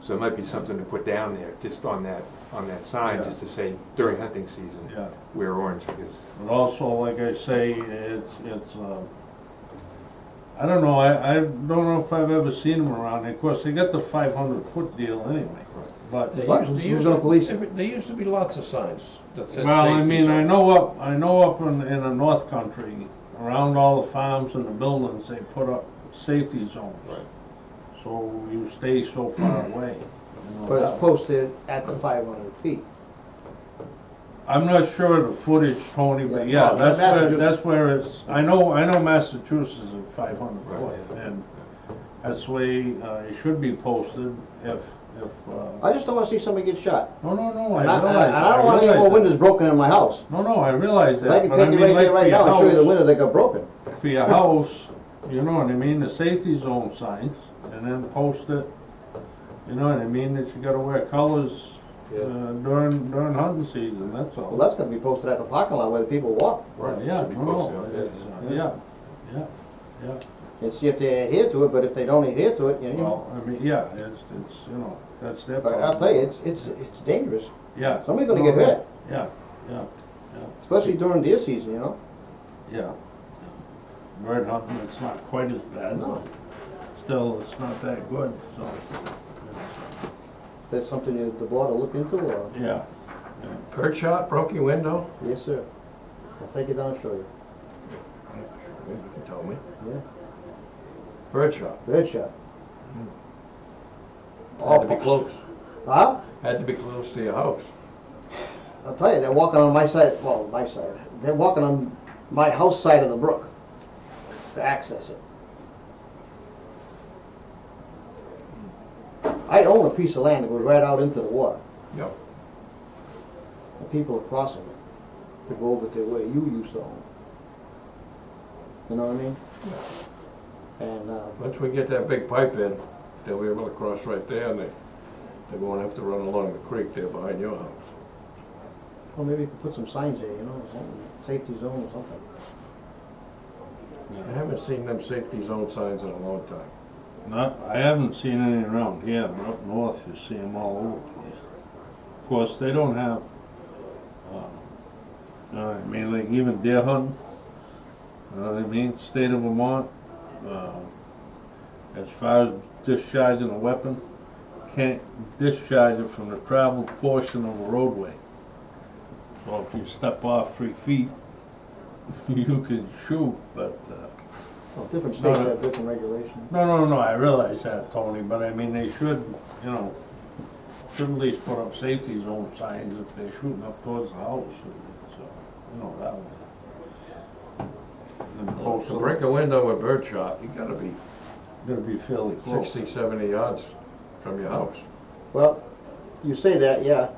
So it might be something to put down there, just on that, on that sign, Yeah. just to say during hunting season, yeah. wear orange, because, And also, like I say, it's, it's, uh, I don't know, I, I don't know if I've ever seen them around, of course, they got the five hundred foot deal anyway, but, They But used- they who's used gonna to- police there- There used to be lots of signs that said safety. well, I mean, I zone. know up, I know up in, in the north country, around all the farms and the buildings, they put up safety zones. Right. So you stay so far away. you know. But it's posted at the five hundred feet. I'm not sure of the footage, Tony, but Yeah, yeah, no, that's where, Massachusetts- that's where it's, I know, I know Massachusetts is five hundred Right. foot, and that's the way, uh, it should be posted if, if, uh, I just don't wanna see somebody get shot. no, no, no, I And I, realize uh, and that. I don't wanna see realize more that. windows broken in my house. No, no, I realize I that, can but I take it mean, right there like for right your now and show you the house, window that got broken. for your house, you know what I mean, the safety zone signs, and then post it, you know what I mean, that you gotta wear colors, uh, Yeah. during, during hunting season, that's all. Well, that's gonna be posted at the parking lot where the people walk right, Yeah, should be no, posted no, out there. it's, uh, yeah, yeah, yeah. and see if they adhere to it, but if they don't adhere to it, you know. Well, I mean, yeah, it's, it's, you know, that's their But problem. I'll tell you, it's, it's, it's dangerous. Yeah. Somebody's gonna get hurt, Yeah, yeah, especially during deer season, you know? yeah. Bird hunting, it's not quite as bad, No. still, it's not that good, so, That's something that the board will look into, or, yeah. Bird shot, broke your window? yes, sir. I'll take you down and show you, You can tell me. yeah. Bird shot, Bird shot. Hmm. had to be close, Huh? had to be close to your house. I'll tell you, they're walking on my side, well, my side, they're walking on my house side of the brook to access it. I own a piece of land that goes right out into the water, Yep. and people are crossing it to go over to where you used to own. You know what I mean? And, uh, Once we get that big pipe in, they'll be able to cross right there and they, they won't have to run along the creek there behind your house. well, maybe you could put some signs there, you know, something, safety zone or something. I haven't seen them safety zone signs in a long time. Not, I haven't seen any around here, but up north you see them all over the place. Of course, they don't have, uh, you know what I mean, like even deer hunting, you know what I mean, state of Vermont, uh, as far as discharging a weapon, can't discharge it from the traveled portion of a roadway. So if you step off three feet, you can shoot, but, uh, Well, different states No, no. have different regulations. no, no, no, I realize that, Tony, but I mean, they should, you know, should at least put up safety zone signs if they're shooting up towards the house, and so, you know, that way. And Oh, then Oh, post To them, break a window with bird shot, you gotta be Gonna be fairly Oh. close. 60, 70 yards from your house. Well, you say that, yeah,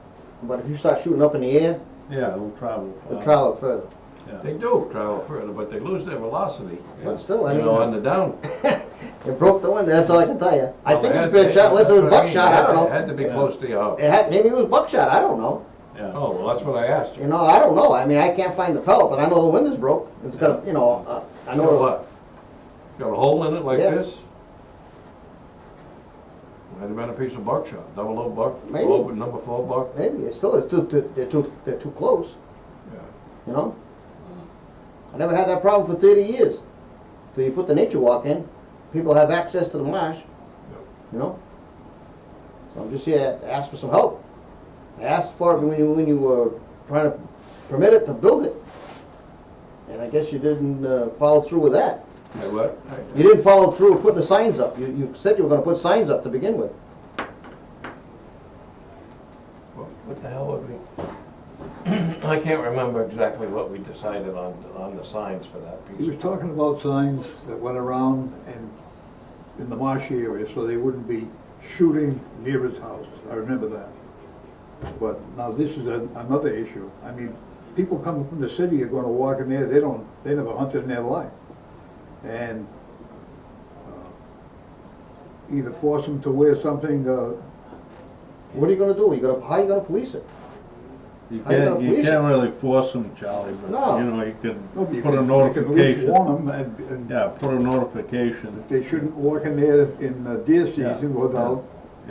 but if you start shooting up in the air, Yeah, it'll travel. they'll far. travel further. Yeah, They do travel further, but they lose their velocity, But still, I you know, on mean, the down. it broke the window, that's all I can tell you. I Well, think it it's had- been shot, unless that's what it was mean, buckshot, it I had- don't It know. had to be Yeah. close to your house. It had, maybe it was buckshot, I don't know. yeah, Oh, well, that's what I asked You you. know, I don't know, I mean, I can't find the pellet, but I know the window's broke. It's got, a you know, uh, I You know know, what? Got a hole in it like Yeah. this? Might have been a piece of buckshot, double O buck, Maybe. low, number four buck. maybe, it's still, it's too, too- they're too, they're too close, Yeah. you know? I never had that problem for thirty years. Till you put the nature walk in, people have access to the marsh, you know? So I'm just here to ask for some help. I asked for it when you, when you were trying to permit it to build it. And I guess you didn't uh, follow through with that. Hey, what? You didn't follow through with putting the signs up. You, you said you were gonna put signs up to begin with. What the hell would we? I can't remember exactly what we decided on, on the signs for that He piece. was talking about signs that went around and in the marshy area, so they wouldn't be shooting near his house. I remember that. But now this is a- another issue. I mean, people coming from the city are gonna walk in there, they don't, they never hunted in their life. And uh, either force them to wear something, uh, What are you gonna do? You gonna, how are you gonna police it? you How you can't, gonna you police it? can't really force them, Charlie, No. but, you know, you can no, you put a can- you can at least notification. warn them and, and Yeah, put a notification, that they shouldn't walk in there in the deer season without